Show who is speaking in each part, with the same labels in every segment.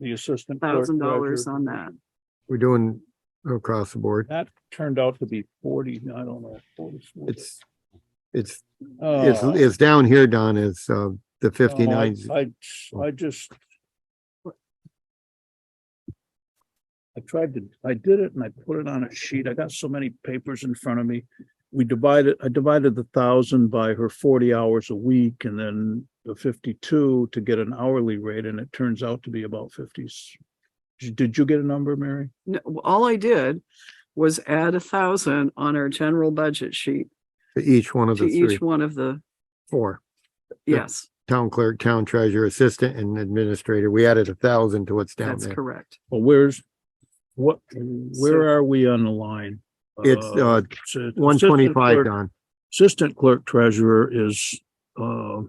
Speaker 1: the assistant. clerk
Speaker 2: thousand dollars
Speaker 1: treasurer.
Speaker 2: on that.
Speaker 3: We're doing across the board.
Speaker 1: That turned out to be forty, I don't know, forty-four.
Speaker 3: It's, it's,
Speaker 2: Uh,
Speaker 3: it's,
Speaker 1: Oh,
Speaker 3: it's down here, Don, is, uh,
Speaker 2: Oh,
Speaker 3: the
Speaker 1: no, I-
Speaker 3: fifty-nine.
Speaker 1: I, I just. I tried to, I did it and I put it on a sheet. I got so many papers in front of me. We divided, I divided the thousand by her forty hours a week and then the fifty-two to get an hourly rate and it turns out to be about fifties. Did you get a number, Mary?
Speaker 2: No, all I did was add a thousand on our general budget sheet
Speaker 3: To each one of
Speaker 2: to
Speaker 3: the three,
Speaker 2: each one of the,
Speaker 3: four, Yeah.
Speaker 2: yes,
Speaker 3: town clerk, town treasurer, assistant and administrator. We added a thousand to what's down
Speaker 2: that's
Speaker 3: there.
Speaker 2: correct.
Speaker 1: Well, where's, what, where are we on the line?
Speaker 3: It's, uh,
Speaker 1: it's, uh,
Speaker 3: One twenty-five,
Speaker 1: assistant clerk-
Speaker 3: Don.
Speaker 1: Assistant clerk treasurer is, uh,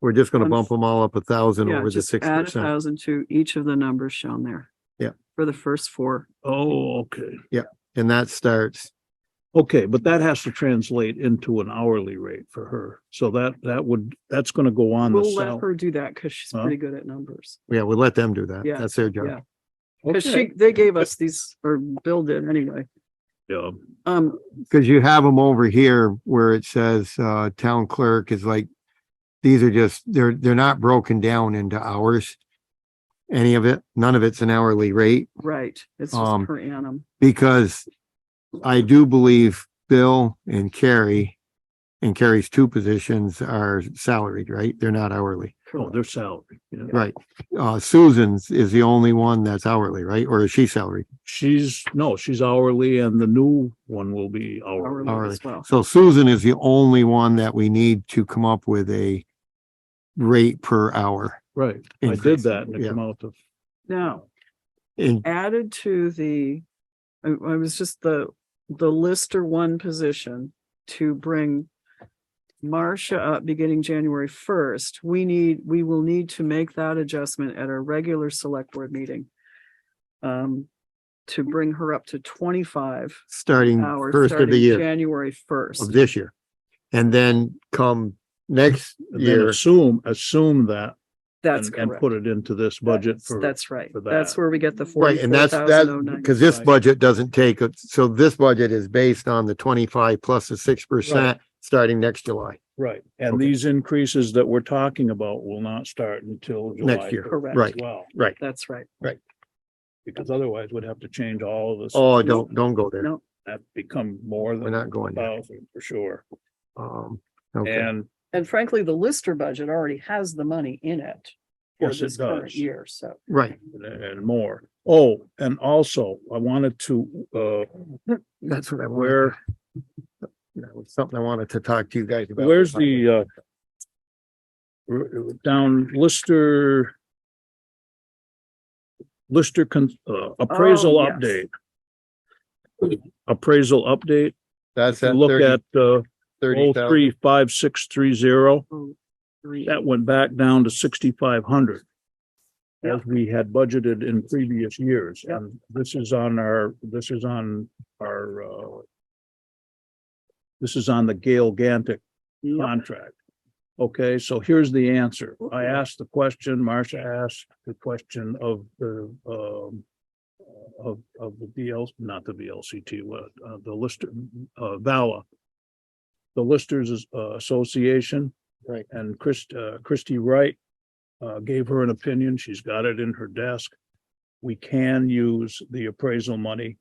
Speaker 3: We're just gonna
Speaker 2: One-
Speaker 3: bump them all up a thousand
Speaker 2: Yeah,
Speaker 3: over the
Speaker 2: just
Speaker 3: six
Speaker 2: add a
Speaker 3: percent.
Speaker 2: thousand to each of the numbers shown there.
Speaker 3: Yeah.
Speaker 2: For the first four.
Speaker 1: oh, okay.
Speaker 3: And that starts,
Speaker 1: Okay, but that has to translate into an hourly rate for her. So that, that would, that's gonna go on the
Speaker 2: We'll let
Speaker 1: salary.
Speaker 2: her do that because she's
Speaker 1: Huh?
Speaker 2: pretty good at numbers.
Speaker 3: yeah, we'll let them do that.
Speaker 2: Yeah,
Speaker 3: That's their job.
Speaker 2: yeah. Because she, they gave us these, or Bill did anyway.
Speaker 1: oh,
Speaker 2: Um,
Speaker 3: Cause you have them over here where it says, uh, town clerk is like, these are just, they're, they're not broken down into hours. Any of it, none of it's an hourly rate
Speaker 2: right, it's
Speaker 3: Um,
Speaker 2: just per annum.
Speaker 3: because I do believe Bill and Carrie and Carrie's two positions are salaried, right? They're not hourly.
Speaker 1: Oh,
Speaker 2: Correct.
Speaker 1: their salary, yeah.
Speaker 3: Right. Uh, Susan's is the only one that's hourly, right? Or is she salaried?
Speaker 1: She's, no, she's hourly and the new one will be hourly.
Speaker 2: Hourly as well.
Speaker 3: So Susan is the only one that we need to come up with a rate per hour.
Speaker 1: Right, I did
Speaker 3: Increase,
Speaker 1: that and it
Speaker 3: yeah.
Speaker 1: came out to
Speaker 2: Now,
Speaker 3: And
Speaker 2: added to the, I, I was just the, the lister one position to bring Marcia up beginning January first, we need, we will need to make that adjustment at our regular select board meeting. Um, to bring her up to twenty-five
Speaker 3: starting
Speaker 2: hours.
Speaker 3: Mm, first of the
Speaker 2: starting
Speaker 3: year
Speaker 2: January
Speaker 3: of
Speaker 2: first.
Speaker 3: this year. And then come next
Speaker 1: And then
Speaker 3: year,
Speaker 1: assume, assume that
Speaker 2: That's
Speaker 1: and, and
Speaker 2: correct.
Speaker 1: put it into this budget
Speaker 2: That's-
Speaker 1: for.
Speaker 2: That's right.
Speaker 1: for
Speaker 2: That's
Speaker 1: that.
Speaker 2: where we get the
Speaker 3: right?
Speaker 2: forty-four
Speaker 3: And that's,
Speaker 2: thousand oh
Speaker 3: that,
Speaker 2: nine.
Speaker 3: because this
Speaker 1: Right.
Speaker 3: budget doesn't take, a- so this budget is based on the twenty-five plus the six percent starting next July.
Speaker 1: Right, and
Speaker 3: Okay.
Speaker 1: these increases that we're talking about will not start until July.
Speaker 3: Next year,
Speaker 1: 1st
Speaker 2: Correct.
Speaker 3: right.
Speaker 1: as Well,
Speaker 2: That's right.
Speaker 1: because otherwise we'd have to change all of this.
Speaker 3: Oh, don't, don't go there.
Speaker 2: No.
Speaker 1: That become more
Speaker 3: We're
Speaker 1: than
Speaker 3: not going there.
Speaker 1: thousand for sure.
Speaker 3: Um, okay.
Speaker 1: And
Speaker 2: And frankly, the Lister budget already has the money in it. for
Speaker 1: Yes, it
Speaker 2: this current
Speaker 1: does.
Speaker 2: Year, so.
Speaker 3: Right.
Speaker 1: and more. Oh, and also I wanted to uh
Speaker 3: That's what I wanted.
Speaker 1: where
Speaker 3: That was something I wanted to talk to you guys about.
Speaker 1: where's the uh r- r- down Lister Lister con- uh, appraisal
Speaker 2: Oh, yes.
Speaker 1: update. Appraisal update.
Speaker 3: That's
Speaker 1: You
Speaker 3: at
Speaker 1: Look
Speaker 3: thirty,
Speaker 1: at uh
Speaker 3: thirty
Speaker 1: oh
Speaker 3: thousand.
Speaker 1: three five six three zero.
Speaker 2: Three.
Speaker 1: That went back down to sixty-five hundred.
Speaker 2: Yeah.
Speaker 1: As we had budgeted in previous years,
Speaker 2: Yeah.
Speaker 1: and this is on our, this is on our, uh. This is on the Gale Gantic
Speaker 2: Yep.
Speaker 1: contract. Okay, so here's the answer. I
Speaker 2: Okay.
Speaker 1: asked the question, Marcia asked the question of the, um. Of, of the DL, not the VLCT, what, uh, the Lister, uh, VALA. The Listers uh, Association.
Speaker 3: Right.
Speaker 1: And Chris, uh, Christie Wright. Uh, gave her an opinion. She's got it in her desk. We can use the appraisal money.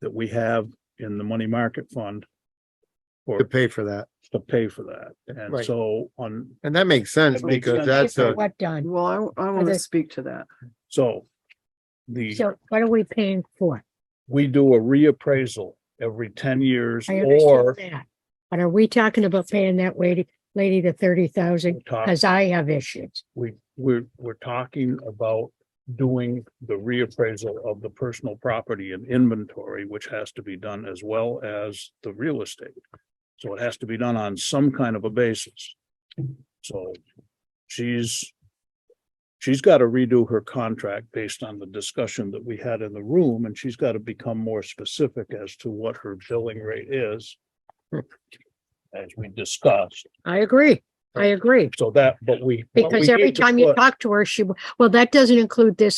Speaker 1: That we have in the money market fund. For
Speaker 3: To pay for that.
Speaker 1: to pay for that. And
Speaker 3: Right.
Speaker 1: so on,
Speaker 3: And that makes sense
Speaker 1: That makes sense.
Speaker 3: because that's
Speaker 4: For
Speaker 3: a,
Speaker 4: What done?
Speaker 2: Well, I, I want to
Speaker 4: they-
Speaker 2: speak to that.
Speaker 1: so the,
Speaker 4: So what are we paying for?
Speaker 1: we do a reappraisal every ten years
Speaker 4: I understand
Speaker 1: or
Speaker 4: that. But are we talking about paying that lady, lady the thirty thousand?
Speaker 1: talk,
Speaker 4: Cause I have issues.
Speaker 1: we, we're, we're talking about doing the reappraisal of the personal property and inventory, which has to be done as well as the real estate. So it has to be done on some kind of a basis. So she's, she's got to redo her contract based on the discussion that we had in the room, and she's got to become more specific as to what her billing rate is. As we discussed,
Speaker 4: I agree. I agree.
Speaker 1: so that, but we. what we
Speaker 4: Because every
Speaker 1: need to
Speaker 4: time you
Speaker 1: put-
Speaker 4: talk to her, she, w- well, that doesn't include this